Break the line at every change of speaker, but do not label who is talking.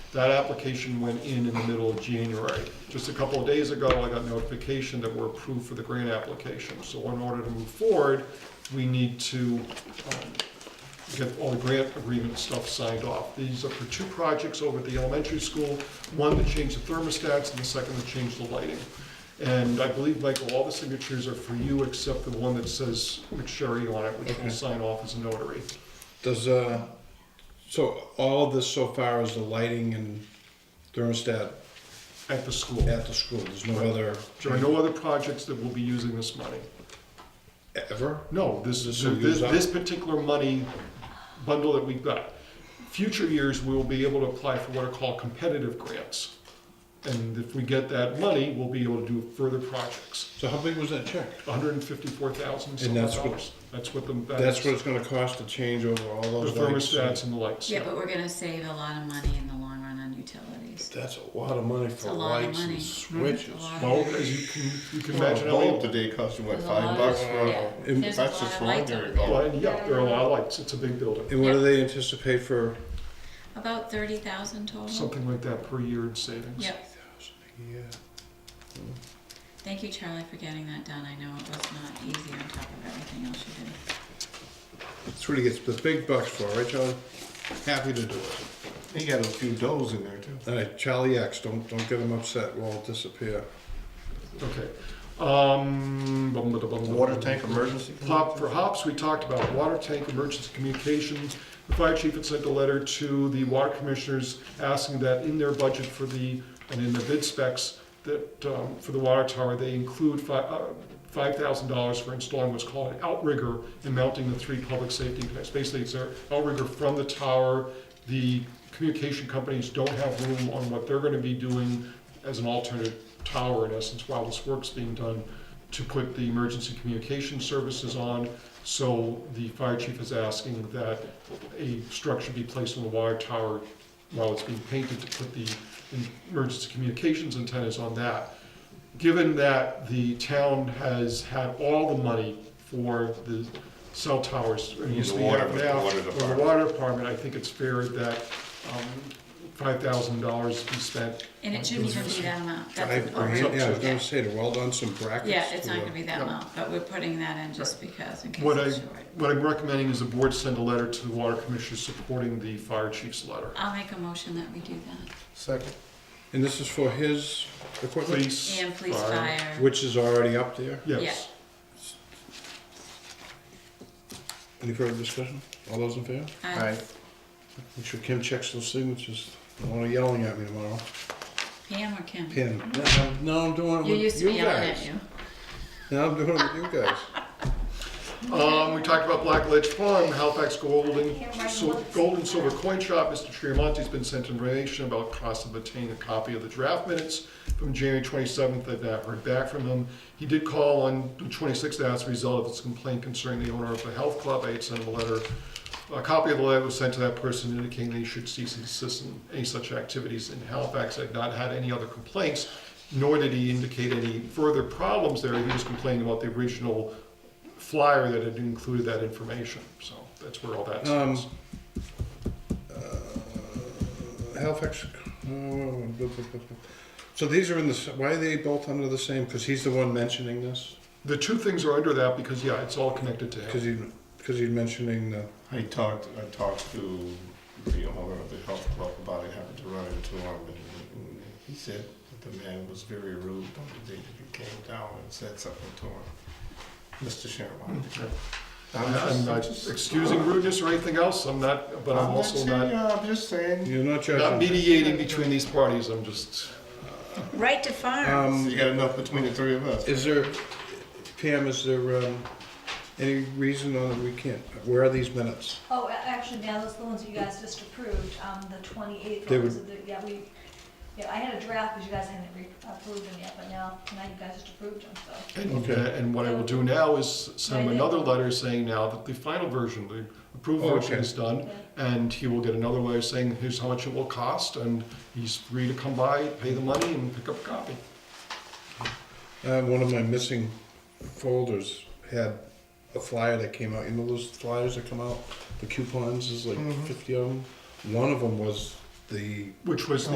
That application went in in the middle of January. Just a couple of days ago, I got notification that we're approved for the grant application. So in order to move forward, we need to um, get all the grant agreement stuff signed off. These are for two projects over at the elementary school, one that changed the thermostats and the second that changed the lighting. And I believe, Michael, all the signatures are for you except the one that says McSherry on it, which will
Okay.
sign off as a notary.
Does, uh, so all of this so far is the lighting and thermostat
At the school.
at the school, there's no other?
There are no other projects that will be using this money.
Ever?
No, this
This
is,
will
this,
use up.
this particular money bundle that we've got. Future years, we will be able to apply for what are called competitive grants. And if we get that money, we'll be able to do further projects.
So how big was that check?
hundred and fifty-four thousand
And that's what-
dollars. That's what the.
That's what it's gonna cost to change over all
The
those lights?
thermostats and the lights.
Yeah, but we're gonna save a lot of money in the long run on utilities.
That's a lot of money
It's a
for
lot of
lights
money.
and
It's
switches.
a lot of-
Well, as you can, you can
Well,
imagine,
A
how
bulb
many-
today costs you, what,
There's a
five
lot
bucks
of- yeah.
for a,
And-
There's a
that's
lot
just
of
for
lights
ordinary
over there.
bulb.
well, and yeah, there are a lot of lights. It's a big building,
And what do they anticipate for?
About thirty thousand total.
something like that per year in savings.
Yep.
Yeah.
Thank you, Charlie, for getting that done. I know it was not easy on top of everything else you did.
That's what he gets the big bucks for, right, Charlie? Happy to do it.
They got a few doughs in there too.
All right, Charlie X, don't, don't get him upset, we'll all disappear.
Okay. Um, bum, bum, bum, bum.
Water tank emergency.
Pop for hops, we talked about water tank emergency communications. The fire chief had sent a letter to the water commissioners asking that in their budget for the, and in their bid specs, that, um, for the water tower, they include fi- uh, five thousand dollars for installing what's called an outrigger and mounting the three public safety connects. Basically, it's an outrigger from the tower. The communication companies don't have room on what they're gonna be doing as an alternate tower, in essence, while this work's being done to put the emergency communication services on. So the fire chief is asking that a structure be placed on the wire tower while it's being painted to put the emergency communications antennas on that. Given that the town has had all the money for the cell towers, or
mean
used to
the
be
water-
have
the
now,
water
for the
department.
water department, I think it's fair that um, five thousand dollars be spent.
And it shouldn't even be that amount. That's
Five
what we're-
grand, yeah, I was
yeah.
gonna say, to well done some brackets.
Yeah, it's
to
not
the-
gonna be that amount, but we're putting that in just because in case
What I,
it's short.
what I'm recommending is the board send a letter to the water commissioners supporting the fire chief's letter.
I'll make a motion that we do that.
Second.
And this is for his equipment,
Police.
And police fire.
which is already up there?
Yes.
Any further discussion? All those in favor?
I-
Alright,
Make sure Kim checks those signatures. I want her yelling at me tomorrow.
Pam or Kim?
Pam, no, no, I'm doing it
You
with
used to be
you
yelling at
guys.
you.
Now I'm doing it with you guys.
Um, we talked about Black Ledge Farm, Halifax Gold and, so, Gold and Silver Coin Shop. Mr. Triamonte's been sent information about cost of obtaining a copy of the draft minutes from January twenty-seventh. I've not heard back from him. He did call on the twenty-sixth as a result of his complaint concerning the owner of the health club. I had sent him a letter. A copy of the letter was sent to that person indicating they should cease and desist in any such activities in Halifax. I've not had any other complaints, nor did he indicate any further problems there. He was complaining about the original flyer that had included that information, so that's where all that
Um,
stands.
uh, Halifax. uh, So these are in the, s- why are they both under the same? Because he's the one mentioning this?
The two things are under that because, yeah, it's all connected to
Because
him.
he, because he's mentioning the,
I talked, I talked to the owner of the health club about it, happened to run into him, and and he said that the man was very rude on the day that he came down and said something to him. Mr. Sherman.
I'm not excusing rudeness or anything else, I'm not, but I'm also
saying,
not,
uh, I'm just saying,
you're not
not
judging.
mediating between these parties, I'm just,
Right to farm.
Um,
you got enough between the three of us.
Is there, Pam, is there um, any reason on, we can't, where are these minutes?
Oh, a- actually, now those are the ones you guys just approved, um, the twenty-eighth,
They
ones, that- yeah, we, yeah, I had a draft, because you guys hadn't re- approved them yet, but now, now you guys just approved them, so.
and,
Okay.
and what I will do now is send him another letter saying now that the final version, the approved version
Okay.
is done, and he will get another letter saying here's how much it will cost, and he's free to come by, pay the money, and pick up a copy.
Uh, One of my missing folders had a flyer that came out, you know those flyers that come out, the coupons, there's like
Mhm.
fifty of them? One of them was the
which was